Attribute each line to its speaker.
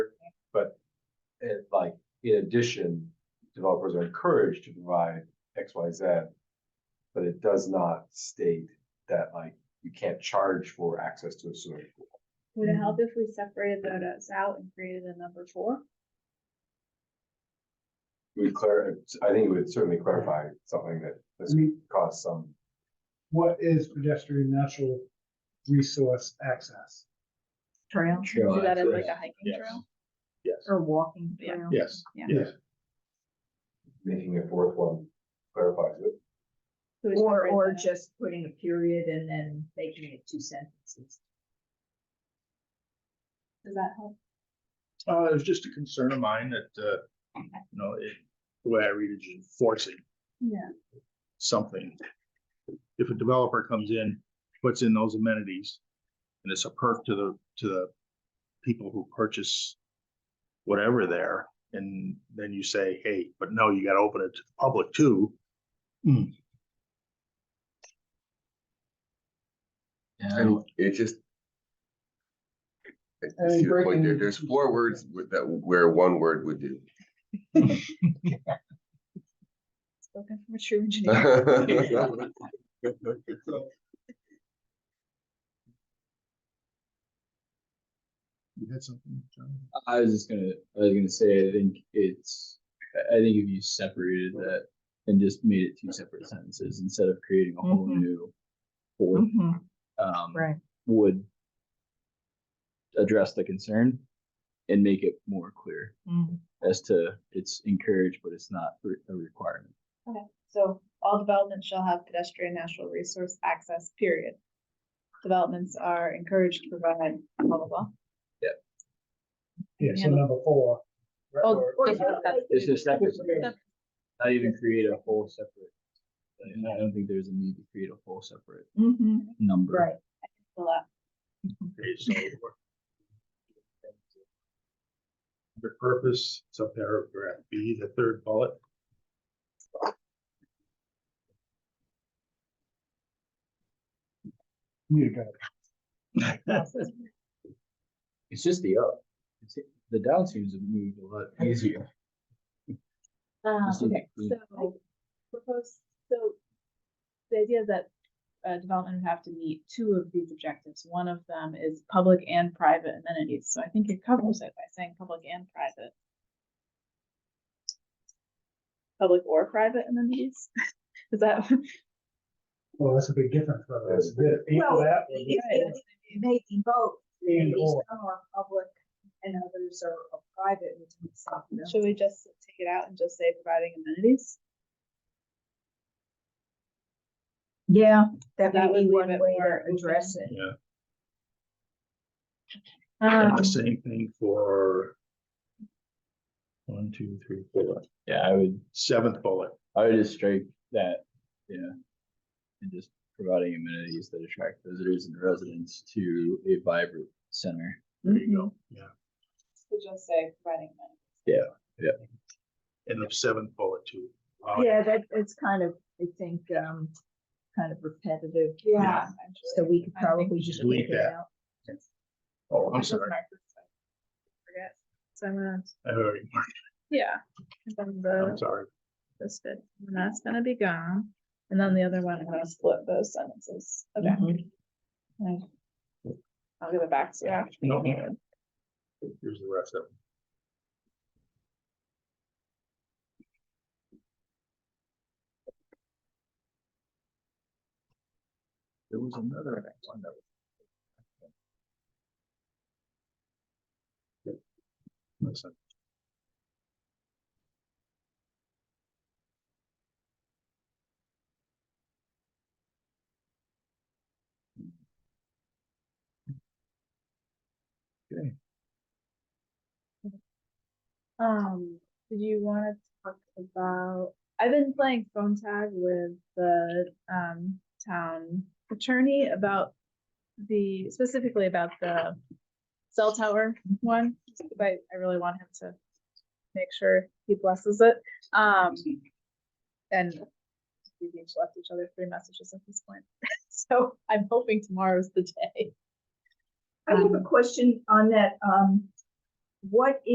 Speaker 1: in addition, developers are encouraged to provide X, Y, Z. But it does not state that like you can't charge for access to a swimming pool.
Speaker 2: Would it
Speaker 3: Mhm.
Speaker 2: help if we separated those out and created a number four?
Speaker 1: We clar, I think it would certainly clarify something that
Speaker 4: I
Speaker 1: has
Speaker 5: Mm-hmm.
Speaker 4: mean,
Speaker 1: caused some,
Speaker 4: what is pedestrian natural resource access?
Speaker 3: trail
Speaker 2: Do
Speaker 5: Sure.
Speaker 2: that as like a hiking trail?
Speaker 5: Yes,
Speaker 3: or walking
Speaker 2: Yeah.
Speaker 3: trail.
Speaker 5: yes,
Speaker 2: Yeah.
Speaker 5: yes.
Speaker 1: making a fourth one clarifies it.
Speaker 2: So we
Speaker 3: Or,
Speaker 2: separate
Speaker 3: or
Speaker 2: that.
Speaker 3: just putting a period and then making it two sentences.
Speaker 2: Does that help?
Speaker 5: Uh, it was just a concern of mine that, uh, you know, it, the way I read it, is forcing
Speaker 2: Yeah.
Speaker 5: something. If a developer comes in, puts in those amenities, and it's a perk to the, to the people who purchase whatever there, and then you say, hey, but no, you gotta open it to the public too.
Speaker 6: And it just. I- I
Speaker 4: And
Speaker 6: see your point there.
Speaker 4: breaking-
Speaker 6: There's four words with that, where one word would do.
Speaker 3: Spoken from a true engineer.
Speaker 6: Well,
Speaker 5: You had something, John?
Speaker 2: Uh,
Speaker 7: I was just gonna, I was gonna say, I think it's, I, I think if you separated that and just made it two separate sentences instead of creating a whole
Speaker 3: Mhm.
Speaker 7: new fourth,
Speaker 3: Mhm,
Speaker 7: um,
Speaker 3: Right,
Speaker 7: would address the concern and make it more clear
Speaker 3: mhm.
Speaker 7: as to it's encouraged, but it's not re- a requirement.
Speaker 2: So all developments shall have pedestrian natural resource access, period. Developments are encouraged to provide blah, blah, blah.
Speaker 4: Yeah, so
Speaker 2: Yeah.
Speaker 4: number four. or-
Speaker 2: Oh,
Speaker 4: or-
Speaker 2: Or
Speaker 3: Or-
Speaker 2: separate.
Speaker 7: It's just separate,
Speaker 4: Yeah.
Speaker 7: not even create a whole separate. And I don't think there's a need to create a whole separate
Speaker 3: Mhm,
Speaker 7: number.
Speaker 3: Right,
Speaker 2: The left.
Speaker 5: Okay, so. we're- The purpose, it's a paragraph B, the third bullet.
Speaker 4: You got it.
Speaker 7: It's just the up. It's, the down seems to have moved a lot easier.
Speaker 2: Um,
Speaker 7: Just
Speaker 2: okay,
Speaker 7: leave it
Speaker 2: so propose, so the idea is that uh development would have to meet two of these objectives. One of them is public and private amenities. So I think it covers it by saying public and private. Public or private amenities? Is that?
Speaker 4: Well, that's a big difference, whether it's
Speaker 3: Well,
Speaker 4: equal that or
Speaker 3: it- it- it may be both,
Speaker 4: and
Speaker 3: maybe
Speaker 4: or.
Speaker 3: some are public and others are are private. which is something else.
Speaker 2: Should we just take it out and just say providing amenities?
Speaker 3: Yeah, that
Speaker 2: That
Speaker 3: may
Speaker 2: would
Speaker 3: be
Speaker 2: leave
Speaker 3: one
Speaker 2: it
Speaker 3: way
Speaker 2: more
Speaker 3: to address it.
Speaker 5: Yeah, and
Speaker 2: Um,
Speaker 5: the same thing for one, two, three, four,
Speaker 7: Yeah, I would,
Speaker 5: seventh bullet.
Speaker 7: I would just strike that, yeah. And just providing amenities that attract visitors and residents to a vibrant center.
Speaker 5: There
Speaker 3: Mm-hmm.
Speaker 5: you go. Yeah,
Speaker 2: so just say providing amenities.
Speaker 5: and the seventh bullet too. Uh,
Speaker 3: Yeah, that, it's kind of, I think, um, kind of repetitive.
Speaker 2: Yeah.
Speaker 3: So we could
Speaker 2: I think
Speaker 3: probably
Speaker 5: just
Speaker 3: just
Speaker 5: delete
Speaker 3: leave it
Speaker 5: that.
Speaker 3: out.
Speaker 5: Oh, I'm
Speaker 2: That's
Speaker 5: sorry,
Speaker 2: my first one. Forget. So I'm gonna,
Speaker 5: I already, marked
Speaker 2: yeah. And then
Speaker 5: it.
Speaker 2: the-
Speaker 5: I'm sorry.
Speaker 2: this bit, and that's gonna be gone. And then the other one, I'm gonna split those sentences. Okay. Okay. I'll give it back to you. after the
Speaker 5: No.
Speaker 2: meeting.
Speaker 5: Here's the rest of them.
Speaker 7: There was another one that was.
Speaker 5: Listen.
Speaker 2: Um, did you wanna talk about, I've been playing phone tag with the, um, town attorney about the, specifically about the cell tower one, but I really want him to make sure he blesses it, um, and we've each left each other three messages at this point, so I'm hoping tomorrow's the day.
Speaker 3: I have a question on that, um, what